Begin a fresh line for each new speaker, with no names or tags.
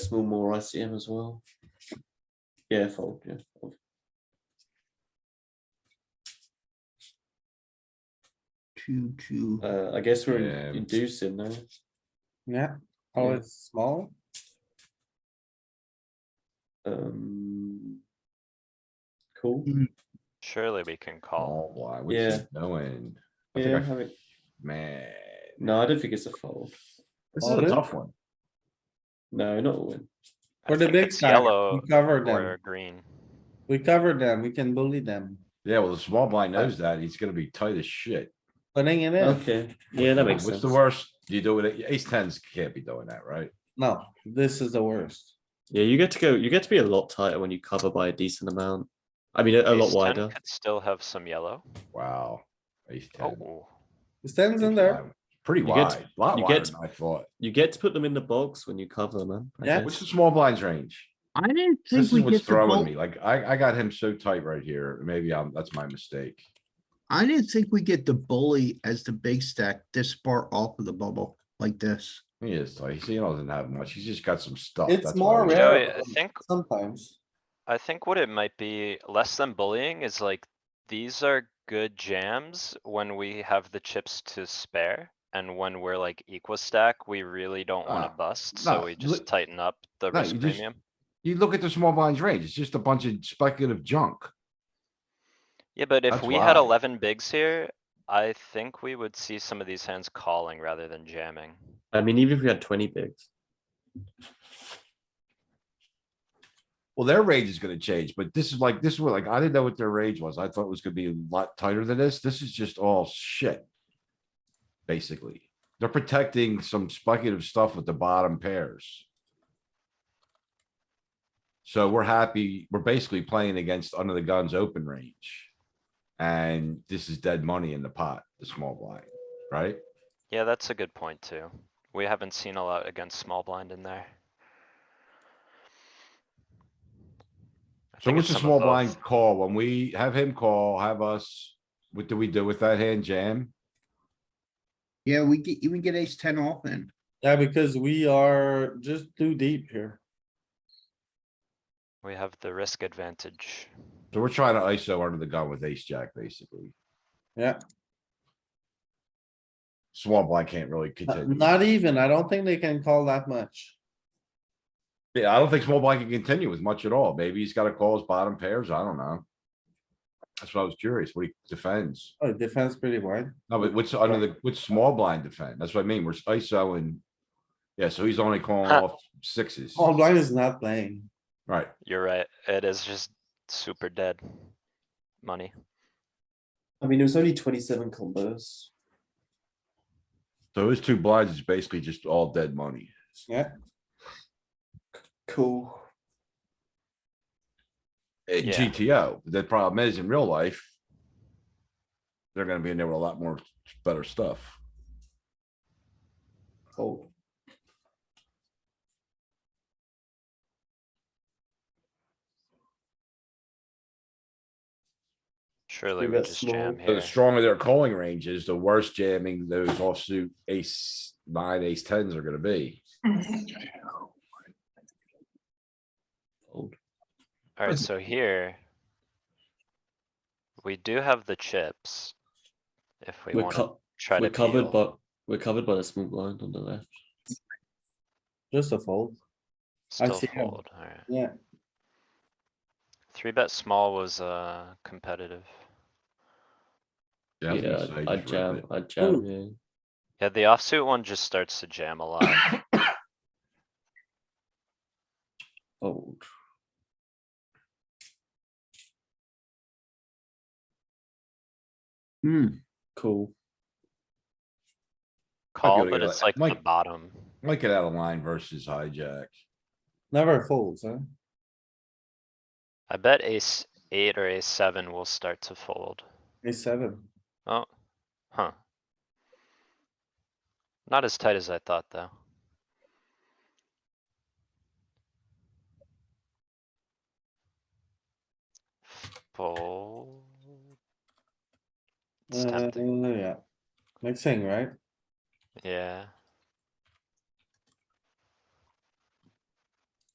decimal more ICM as well. Yeah, fold, yeah. fold.
Two, two.
Uh, I guess we're
Yeah.
in- inducing now.
Yeah, oh,
Yeah.
it's small.
Um. Cool.
Surely we can call.
Oh, why, what you
Yeah.
doing? I
Yeah,
think I,
have it-
man,
no, I don't think it's a fold.
this is a
Folded?
tough one.
No, not a win.
I
For the
think
big
it's
stack, we
Yellow
cover
or
them,
green.
we cover them, we can bully them,
Yeah, well, the small blind knows that. He's gonna be tight as shit.
putting it in,
Okay, yeah, that makes sense.
What's the worst you do with it? Ace tens can't be doing that, right?
no, this is the worst.
Yeah, you get to go. You get to be a lot tighter when you cover by a decent amount. I mean, a, a lot
Ace ten
wider.
Could still have some yellow.
Wow. Ace ten.
Oh,
It stands in there,
Pretty
You get
wide, lot
you
wider
get-
than I thought.
You get to put them in the box when you cover, man. I
Yeah.
guess.
What's the small blinds range?
I didn't think
This is
we
what's
get to
throwing
go,
me. Like, I, I got him so tight right here. Maybe I'm, that's my mistake.
I didn't think we get the bully as the big stack this far off of the bubble like this.
He is tight. He doesn't have much. He's just got some stuff.
It's
that's
more
all he-
You
Yeah,
know,
rare.
I think,
sometimes,
I think what it might be less than bullying is like, these are good jams when we have the chips to spare. And when we're like equal stack, we really don't wanna
Ah,
bust,
no,
so we
li-
just tighten up the
no,
risk
you just-
premium.
You look at the small blinds range, it's just a bunch of speculative junk.
Yeah, but if
That's
we had
why.
eleven bigs here, I think we would see some of these hands calling rather than jamming.
I mean, even if we had twenty bigs,
Well, their range is gonna change, but this is like, this is what, like, I didn't know what their range was. I thought it was gonna be a lot tighter than this. This is just all shit. Basically, they're protecting some speculative stuff with the bottom pairs. So we're happy, we're basically playing against under the guns open range. And this is dead money in the pot, the small blind, right?
Yeah, that's a good point too. We haven't seen a lot against small blind in there. I
So
think
what's
it's
the
some of
small blind
both.
call? When we have him call, have us, what do we do with that hand jam?
Yeah, we get, even get ace ten off and
yeah, because we are just too deep here.
We have the risk advantage.
So we're trying to ISO under the gun with ace jack, basically.
Yeah.
Small blind can't really
Uh,
continue.
Not even, I don't think they can call that much.
Yeah, I don't think small blind can continue with much at all. Maybe he's gotta call his bottom pairs. I don't know. That's what I was curious. What he defends.
Oh, defense pretty wide.
No, but what's under the, what's small blind defend? That's what I mean. We're ISO and. Yeah, so he's only calling
Huh.
off sixes,
All blind is not playing.
right?
You're right, it is just super dead. Money.
I mean, it was only twenty-seven combos.
So his two blinds is basically just all dead money.
Cool.
at
Yeah.
GTO. The problem is in real life. They're gonna be in there with a lot more better stuff.
Fold.
Surely
We
we
got
just
small.
jam
So The
here.
stronger their calling range is, the worse jamming those offsuit ace nine, ace tens are gonna be.
Fold.
Alright, so here. We do have the chips. If we
we're,
wanna
co-
try to
we're covered,
peel.
but we're covered by the small blind on the left.
Just a fold, I
Still
see how-
fold, alright.
yeah.
Three bet small was, uh, competitive.
I was
Yeah,
gonna say,
I'd, I'd
just rip
jam.
it.
I'd jam. Yeah.
Yeah, the offsuit one just starts to jam a lot.
Fold.
Hmm,
Cool.
Call,
to
but
your
it's
le-
like the
Mike.
bottom.
Might get out of line versus hijack.
Never folds, huh?
I bet ace eight or ace seven will start to fold.
A seven.
Oh, huh. Not as tight as I thought, though. Fold. It's
Uh,
tempting,
yeah. Next thing, right?
Mm. yeah.